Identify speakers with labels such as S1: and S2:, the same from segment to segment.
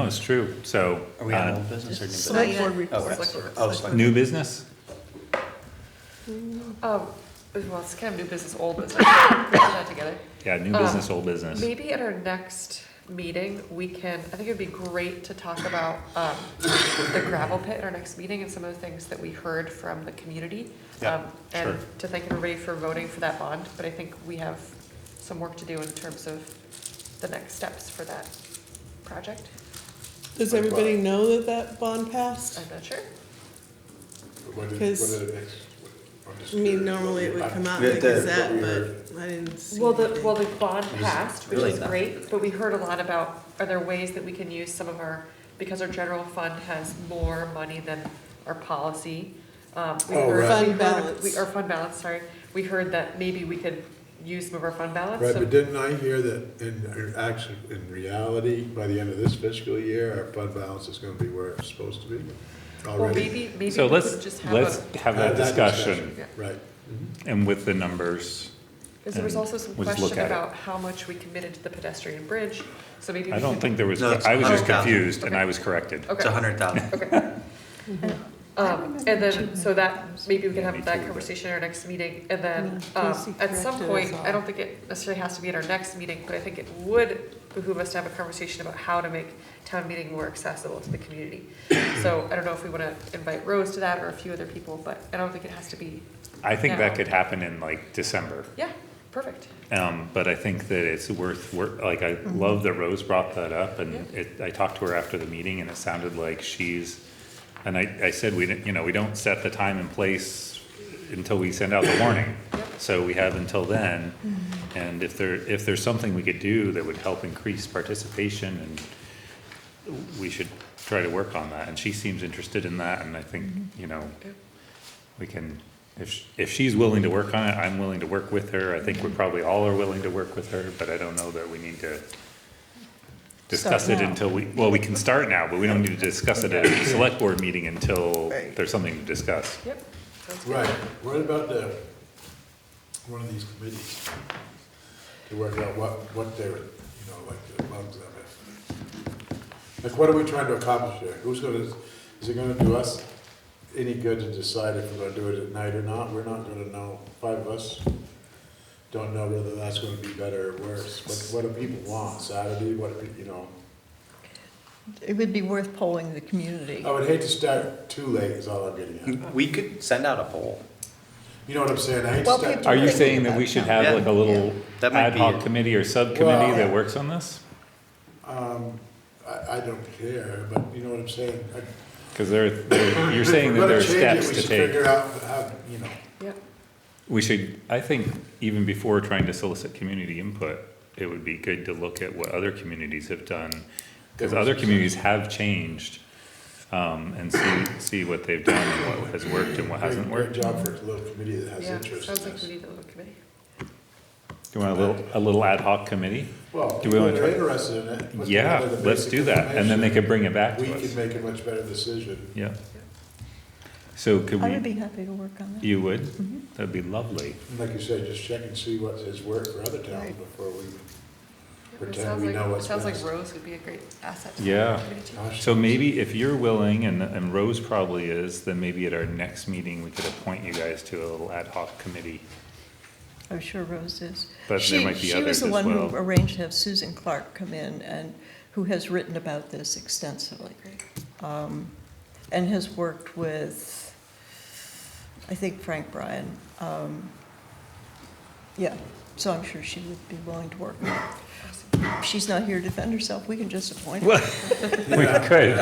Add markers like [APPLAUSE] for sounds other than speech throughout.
S1: Oh, it's true, so.
S2: Are we on
S1: uh,
S2: old business or new business?
S3: Select board
S2: Oh,
S3: report.
S2: that's- Um, oh, select-
S1: New business?
S4: Oh, well, it's kind of new business, old business, Put that together.
S1: Yeah, new
S4: Um,
S1: business, old business.
S4: Maybe at our next meeting, we can, I think it'd be great to talk about, um, the gravel pit at our next meeting and some of the things that we heard from the community.
S2: Yeah,
S4: Um, And
S1: sure.
S4: to thank everybody for voting for that bond, but I think we have some work to do in terms of the next steps for that project.
S3: Does everybody know that that bond passed?
S4: I'm not sure.
S5: When did- when
S3: Because-
S5: did it ex- I'm just
S3: I mean,
S5: curious.
S3: normally it would come out
S2: Yeah,
S3: like
S2: that-
S3: that,
S5: we heard.
S3: but I didn't see.
S4: Well, the,
S3: anything.
S4: well, the bond passed, which
S2: really
S4: is
S2: not.
S4: great, but we heard a lot about, are there ways that we can use some of our, because our general fund has more money than our policy. um, we
S5: Oh,
S4: heard-
S5: right.
S3: Fund
S4: we heard-
S3: balance.
S4: we- Our fund balance, sorry. We heard that maybe we could use some of our fund balance.
S5: Right,
S4: so-
S5: but didn't I hear that in, in actually, in reality, by the end of this fiscal year, our fund balance is gonna be where it's supposed to be
S4: Well,
S5: already?
S4: maybe, maybe
S1: So
S4: we
S1: let's,
S4: could just have
S1: let's
S4: a,
S1: have that
S5: Had
S1: discussion
S4: Yeah.
S5: Right. Mm-hmm.
S1: and with the numbers.
S4: because there was
S1: and
S4: also some
S1: we'll just look
S4: question
S1: at it.
S4: about how much we committed to the pedestrian bridge, so maybe.
S1: I
S4: we
S1: don't
S4: could-
S1: think there was,
S2: No, it's
S1: I was just
S2: 100,000.
S1: confused and I was corrected.
S2: It's a
S4: Okay,
S2: hundred thousand.
S4: okay.
S3: Mm-hmm.
S4: Um, and then, so that, maybe we
S1: Yeah,
S4: can
S1: me
S4: have that
S1: too, but-
S4: conversation at our next meeting, and then,
S3: Yeah,
S4: um,
S3: Casey
S4: at some
S3: corrected us
S4: point, I
S3: all.
S4: don't think it necessarily has to be at our next meeting, but I think it would behoove us to have a conversation about how to make town meeting more accessible to the community. So I don't know if we wanna invite Rose to that or a few other people, but I don't think it has to be,
S1: I think
S4: No.
S1: that could happen in like December.
S4: yeah, perfect.
S1: Um, but I think that it's worth, wor- like, I love that Rose brought that up, and it, I talked to her after the meeting, and it sounded like she's, and I, I said, we didn't, you know, we don't set the time and place until we send out the warning.
S4: Yep.
S1: So we have until then, and if there, if there's something we could do that would help increase participation, and we should try to work on that, and she seems interested in that, and I think,
S5: Mm-hmm.
S1: you know,
S4: Yep.
S1: we can, if, sh- if she's willing to work on it, I'm willing to work with her. I
S5: Mm-hmm.
S1: think we probably all are willing to work with her, but I don't know that we need to discuss it until we, well, we can start now, but we don't need to discuss it at a select board meeting until
S3: Right.
S1: there's something to discuss.
S4: Yep, sounds good.
S5: Right, what about the, one of these committees? To work out what, what they're, you know, like, the bugs of it. Like, what are we trying to accomplish here? Who's gonna, is it gonna do us any good to decide if we're gonna do it at night or not? We're not gonna know, five of us don't know whether that's gonna be better or worse. What, what do people want, Saturday, what, do pe- you know?
S6: It would be worth polling the community.
S5: I would hate to start too late is all I'm getting at.
S2: We could send out a poll.
S5: You know what I'm saying? I hate to
S6: Well,
S5: start.
S6: people-
S5: too
S1: Are you
S5: late.
S1: saying that we should have like a little
S2: That might
S1: ad
S2: be
S1: hoc
S2: it.
S1: committee or subcommittee that
S5: Well-
S1: works on this?
S5: I, I don't care, but you know what I'm saying? I-
S1: Cause there, there- you're saying that there are
S5: If we're gonna
S1: steps to
S5: change it, we should figure
S1: take.
S5: out how, you know,
S4: Yep,
S1: We should, I think even before trying to solicit community input, it would be good to look at what other communities have done. Cause other communities have changed, um, and see, see what they've done and what has worked and what hasn't
S5: great, great
S1: worked.
S5: job for a little committee that has
S4: yeah,
S5: interest
S4: sounds
S5: in
S4: like we
S5: this.
S4: need a little committee.
S1: Do you want a little, a little ad hoc committee?
S5: Well,
S1: Do
S5: people
S1: we wanna
S5: that are
S1: try-
S5: interested in it. put
S1: Yeah,
S5: together the
S1: let's
S5: basic
S1: do that, and then they could bring it back
S5: information.
S1: to
S5: We can
S1: us.
S5: make a much better decision.
S1: Yeah. So could
S6: I would be
S1: we,
S6: Mm-hmm. happy to work on that.
S1: you would? That'd be lovely.
S5: And Like you say, just check and see what has worked for other towns
S6: Right.
S5: before we,
S4: Yep, it
S5: Pretend
S4: sounds
S5: we
S4: like-
S5: know
S4: it
S5: what's
S4: Sounds like
S5: best.
S4: Rose would be a great asset to
S1: Yeah.
S4: the committee too.
S5: gosh.
S1: So maybe if you're willing, and, and Rose probably is, then maybe at our next meeting, we could appoint you guys to a little ad hoc committee.
S6: I'm sure Rose is.
S1: But there
S6: She-
S1: might be
S6: She was
S1: others
S6: the
S1: as
S6: one
S1: well.
S6: who arranged to have Susan Clark come in and, who has written about this extensively.
S4: Great.
S6: um, And has worked with, I think Frank Bryan. um, Yeah, so I'm sure she would be willing to work. If she's not here to defend herself, we can just appoint her.
S1: Well, we could.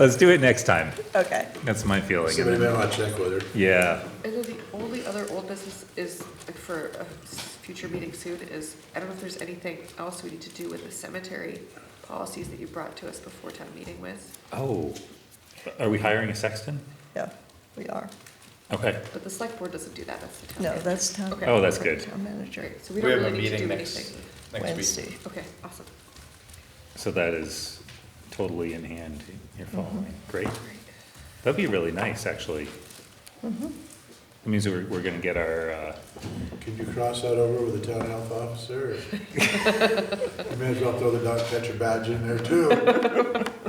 S1: Let's do it next time.
S6: Okay.
S1: That's my feeling.
S5: Somebody may want to check with her.
S1: Yeah,
S4: And then the only other old business is, like, for a s- future meeting soon, is, I don't know if there's anything else we need to do with the cemetery policies that you brought to us before town meeting with,
S1: oh, are we hiring a sexton?
S6: Yeah, we are.
S1: Okay,
S4: but the select board doesn't do that, that's the town.
S6: No,
S4: manager.
S6: that's town.
S4: Okay.
S1: Oh, that's good.
S6: Town manager,
S4: Great, so
S2: We
S4: we don't
S2: have a
S4: really need to
S2: meeting
S4: do
S2: next,
S4: anything.
S2: next week.
S6: Wednesday.
S4: Okay, awesome,
S1: so that is totally in hand, you're following, great.
S4: great.
S1: That'd be really nice, actually. That means we're, we're gonna get our, uh,
S5: Can you cross that over with the town
S4: [LAUGHS] [LAUGHS]
S5: health officer? or- You may as well throw the dog catcher badge in there too.